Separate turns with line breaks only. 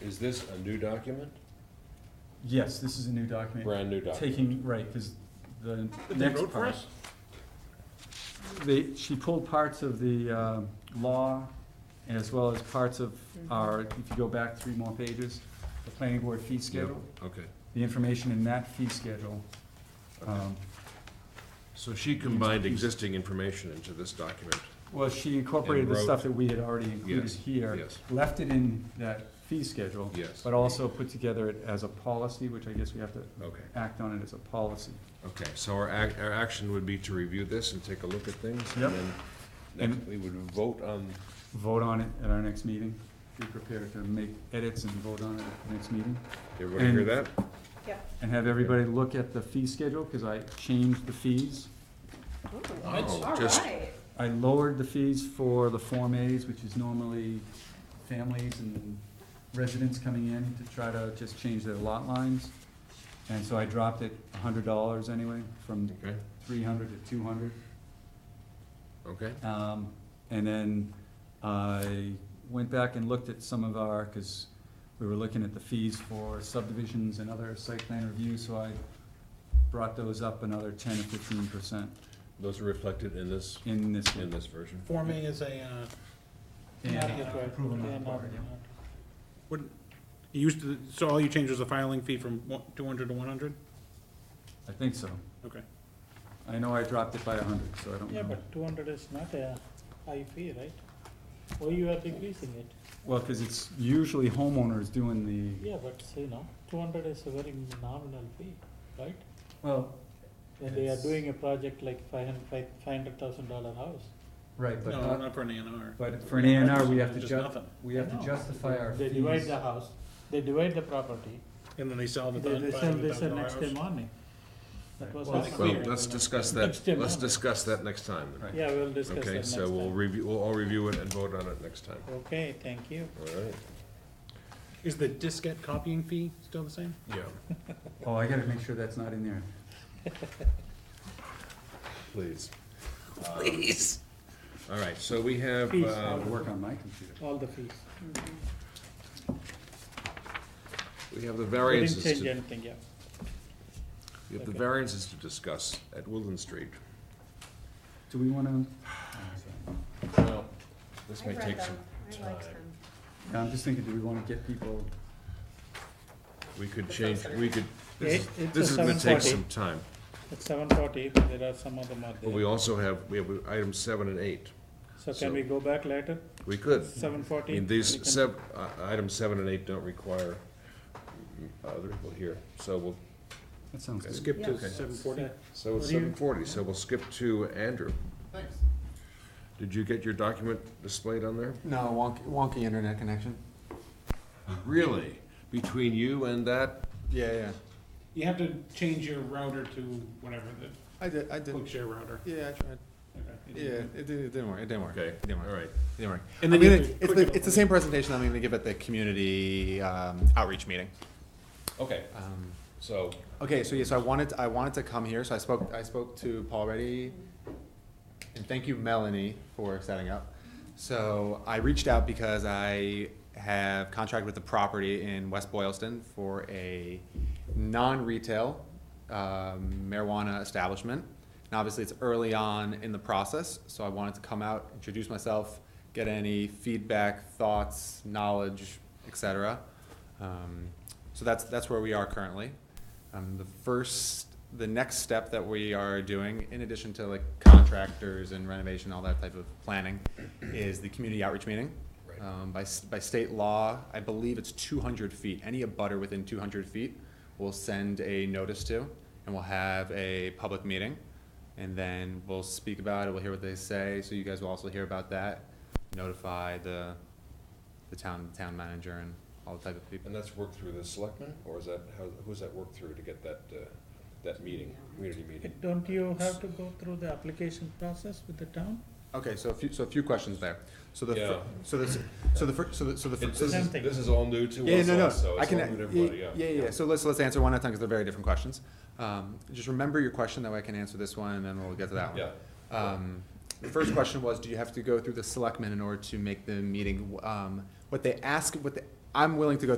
Is this a new document?
Yes, this is a new document.
Brand new document?
Taking, right, because the
But they
next
wrote for
part.
us?
They, she pulled parts of the um, law as well as parts of our, if you go back three more pages, the planning board fee schedule,
Okay,
the information in that fee schedule. Um,
so she combined existing information into this document,
Well, she incorporated the
wrote-
stuff that we had already included
Yes,
here.
yes.
Left it in that fee schedule.
Yes.
But also put together it as a policy, which I guess we have to
okay.
act on it as a policy.
Okay, so our ac our action would be to review this and take a look at things?
Yep.
And
Next, we would vote on,
Vote on it at our next meeting. Be prepared to make edits and vote on it at the next meeting.
everybody hear
And-
that?
And have everybody look at the fee schedule, because I changed the fees.
Oh,
All
just-
right.
I lowered the fees for the Form As, which is normally families and residents coming in to try to just change their lot lines. And so I dropped it a hundred dollars anyway, from
Okay,
three hundred to two hundred.
okay,
Um, and then I went back and looked at some of our, cause we were looking at the fees for subdivisions and other site plan review, so I brought those up another ten or fifteen percent
those are reflected in this,
in this.
in this version?
Form A is a, uh,
And
not yet, right?
approval not
Yeah, not
required, yeah.
yet. Wouldn't- you used to, so all you changed was the filing fee from one, two hundred to one hundred?
I think so.
Okay.
I know I dropped it by a hundred, so I don't
Yeah,
know.
but two hundred is not a high fee, right? Why you are decreasing it?
Well, cause it's usually homeowners doing the,
Yeah, but you know, two hundred is a very nominal fee, right?
well,
When they are
It's-
doing a project like five hundred, five, five hundred thousand dollar house.
right, but
No,
not,
not for an A and R.
but for an A and R, we have to
Just
ju-
nothing.
we have
No.
to justify our
They
fees.
divide the house, they divide the property,
And then they sell the.
they, they sell this the
$500,000
next day morning. That was.
Well,
what
well,
happened.
let's discuss that,
Next time,
let's
huh?
discuss that next time. then.
Right.
Yeah, we'll discuss that
Okay,
next
so we'll
time.
review, we'll all review it and vote on it next time,
Okay, thank you.
all right?
Is the diskette copying fee still the same?
Yeah,
Oh, I gotta make sure that's not in there.
please. Please. All right, so we have,
Please.
uh,
I'll work on my computer.
All the fees.
we have the
We didn't
variances to
change anything, yeah.
We have the
Okay.
variances to discuss at Woodland Street.
Do we wanna,
Well, this
I
may
read
take
them,
some,
I liked
time.
them.
yeah, I'm just thinking, do we wanna get people,
We could change, we could,
It-
this is,
it's
this
a
is gonna take
7:40.
some time.
It's seven forty, but there are some other more
But
there.
we also have, we have items seven and eight.
So
so-
can we go back later,
We could.
seven
I
forty?
mean, these sev, uh, items seven and eight don't require other people here. So we'll,
that sounds good.
Skip to
Yeah.
seven forty?
so it's
What do you-
seven forty, so we'll skip to Andrew.
Thanks.
Did you get your document displayed on there?
No, wonky, wonky internet connection.
Really? Between you and that?
Yeah, yeah.
You have to change your router to whatever, the
I did, I did.
quick share router.
Yeah, I tried.
Okay.
Yeah, it, did, it didn't work. It didn't work.
Okay,
It didn't
all
work.
right.
It didn't work.
And
I
then
mean,
you have
it-
to
it's,
click
the,
it
it's the
on.
same presentation I'm going to give at the community um, outreach meeting.
Okay,
Um,
so,
okay, so yeah, so I wanted I wanted to come here. So I spoke I spoke to Paul Reddy, and thank you Melanie for setting up. So I reached out because I have contracted with the property in West Boylston for a non-retail um, marijuana establishment. And obviously, it's early on in the process, so I wanted to come out, introduce myself, get any feedback, thoughts, knowledge, etc. Um, so that's that's where we are currently. Um, the first, the next step that we are doing, in addition to like contractors and renovation, all that type of planning, is the community outreach meeting.
Right.
Um, by, s- by state law, I believe it's two hundred feet. Any abutter within two hundred feet will send a notice to, and we'll have a public meeting. And then we'll speak about it, we'll hear what they say, so you guys will also hear about that. Notify the, the town, town manager and all the type of people.
And that's worked through the selectmen, or is that, how, who's that worked through to get that, uh, that meeting, community meeting?
Don't you have to go through the application process with the town?
Okay, so a few, so a few questions there. So the,
Yeah.
fir- so the, so the, fir- so the, so the. fir-
It-
so
This
the-
is,
Something.
this is all new to
Yeah,
us
no, no,
also,
I
it's all
can,
new to everybody, yeah.
yeah, yeah, yeah, so let's, let's answer one at a time, because they're very different questions. Um, just remember your question, that way I can answer this one, and then we'll get to that one.
Yeah.
Um, the first question was, do you have to go through the selectmen in order to make the meeting, um, what they ask, what they, I'm willing to go